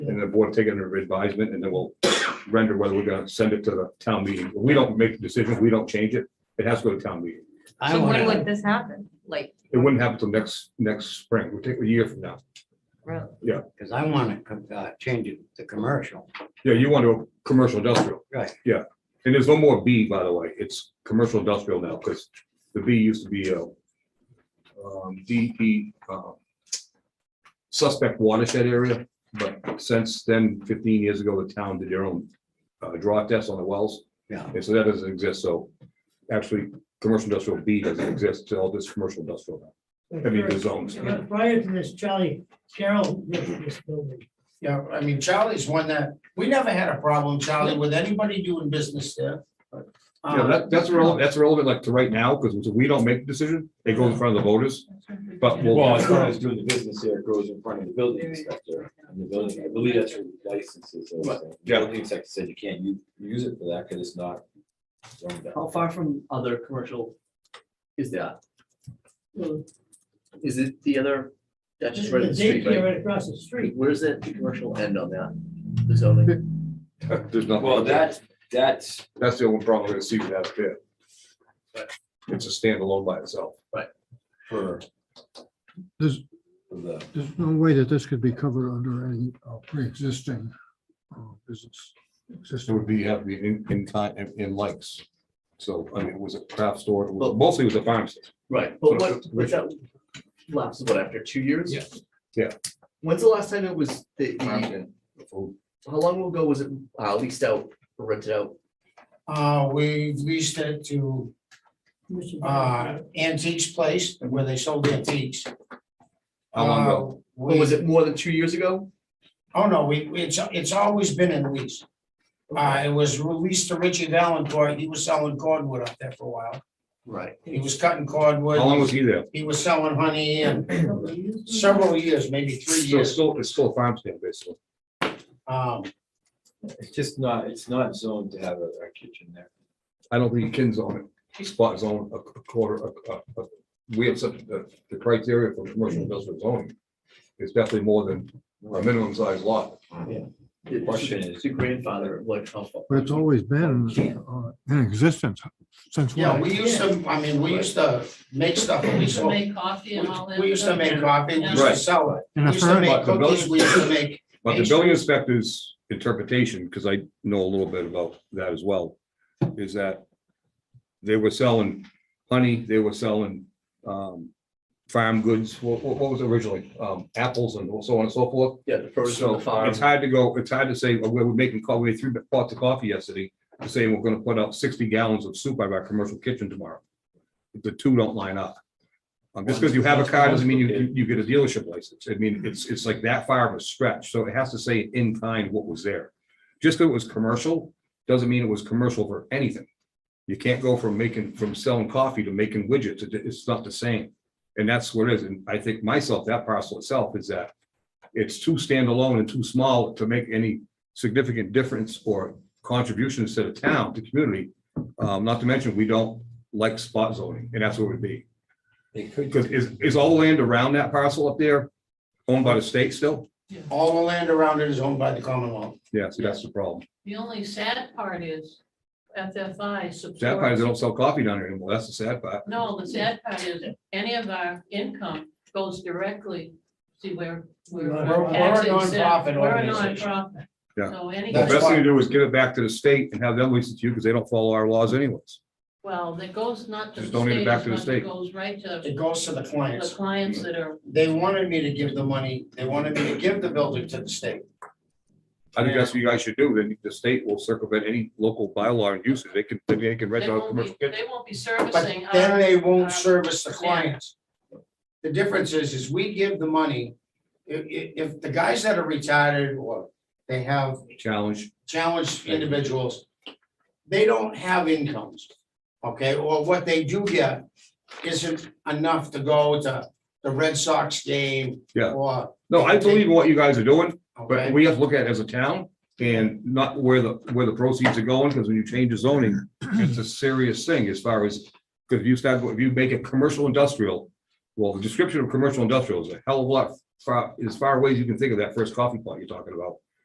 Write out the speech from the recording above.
the board will take it under advisement and then we'll render whether we're gonna send it to the town meeting. We don't make the decision, we don't change it. It has to go to town meeting. I So wanna, when would this happen? Like, It wouldn't happen till next, next spring. We'll take a year from now. really? because I wanna, com- uh, change it to commercial. Yeah, you want to, commercial industrial. Right. Yeah, and there's no more B, by the way, it's commercial industrial now, because the B used to be uh um, DEP, uh, suspect watershed area, but since then, fifteen years ago, the town did their own uh, draw test on the wells, Yeah, and so that doesn't exist, so actually, commercial industrial B doesn't exist, so all this commercial industrial now, I mean, the zones. But Prior to this, Charlie Carroll lived in this building. Yeah, I mean, Charlie's one that, we never had a problem, Charlie, with anybody doing business there. but, um, Yeah, that, that's relevant, that's relevant like to right now, because we don't make the decision, it goes in front of the voters, but we'll. Well, as far as doing the business here, it goes in front of the building inspector, and the building, I believe that's your licenses. or something. The Yeah. Building inspector said you can't u- use it for that, because it's not. zoned out. How far from other commercial is that? Well, Is it the other, that's just right The in the street, daycare right? right across the street. Where's that commercial end on that, the zoning? There's nothing. Well, that, that's, That's the only problem with Seaton Ave pit. Right. It's a standalone by itself. for. Does- for The, There's no way that this could be covered under any uh, pre-existing uh, business. It Existing, would be, have the in, in kind, in- in likes. So, I mean, it was a craft store, it was- mostly it was a farm stand. Right, but what, but that lapsed, what, after two years? Yeah. Yeah. When's the last time it was, the, the- So how long ago was it uh, leased out, or rented out? Uh, we leased it to, Mr. uh, Brown. Antiques Place, where they sold antiques. How long ago? Uh, Or was we- it more than two years ago? Oh, no, we, we- it's, it's always been in lease. Uh, it was released to Richie Valencourt, he was selling cordwood up there for a while. Right. He was cutting cordwood. How long was he there? He was selling honey and several years, maybe three So it's years. still, it's still a farm stand, basically. Um, it's just not, it's not zoned to have a a kitchen there. I don't think Ken's on it. Spot's on a quarter, a, a, a, we have such, the, the criteria for commercial industrial zoning. is definitely more than a minimum size lot. The Question is- the grandfather, like, how far? but it's always been uh, in existence since. Yeah, when? we used to, I mean, we used to make stuff, we used to make, coffee we- we used to make coffee, we used to Right. sell it. In We a used to firm, make But the building- cookies, we used to make, But the building inspector's interpretation, because I know a little bit about that as well, is that they were selling honey, they were selling um, farm goods, what, what what was originally, um, apples and so on and so forth. Yeah, the produce on So the farm. it's hard to go, it's hard to say, "Oh, we were making coffee, we had three pots of coffee yesterday, to say we're gonna put out sixty gallons of soup out of our commercial kitchen tomorrow. The two don't line up. Um, Just because you have a car doesn't mean you, you- you get a dealership license. I mean, it's, it's like that far of a stretch, so it has to say in kind what was there. Just that it was commercial, doesn't mean it was commercial for anything. You can't go from making, from selling coffee to making widgets, It- it's not the same. And that's what it is, and I think myself, that parcel itself is that it's too standalone and too small to make any significant difference or contributions to the town, to the community. Um, not to mention, we don't like spot zoning, and that's what it would be. It could, Because is, is all the land around that parcel up there owned by the state still? all the land around it is owned by the Commonwealth. Yeah, see, that's the problem. The only sad part is FFI Sad part is supports, they don't sell coffee down here anymore. That's the sad part. no, the sad part is any of our income goes directly, see where, We're- we're. we're a tax exempt. nonprofit We're a organization. nonprofit. Yeah. So The any, That's best thing why- to do is give it back to the state and have them lease it to you because they don't follow our laws anyways. well, that goes not to the Just donate it state, back as to the much, state. it goes right to It goes to the the clients. clients that are, They wanted me to give the money, they wanted me to give the building to the state. I think that's what you guys should do. Then the state will circumvent any local bylaw and usage. They can, they can rent they out a won't commercial be, kitchen. they won't be But servicing. then our- they uh, won't service the yeah. clients. The difference is, is we give the money, i- i- if the guys that are retired or they have Challenge. challenged individuals, they don't have incomes, okay, or what they do get isn't enough to go to the Red Sox game. Yeah. Or, No, I believe in what you guys are doing. But okay, we have to look at it as a town and not where the, where the proceeds are going, because when you change the zoning, it's a serious thing as far as, because if you start, if you make it commercial industrial, well, the description of commercial industrial is a hell of a lot, far, as far away as you can think of that first coffee pot you're talking about.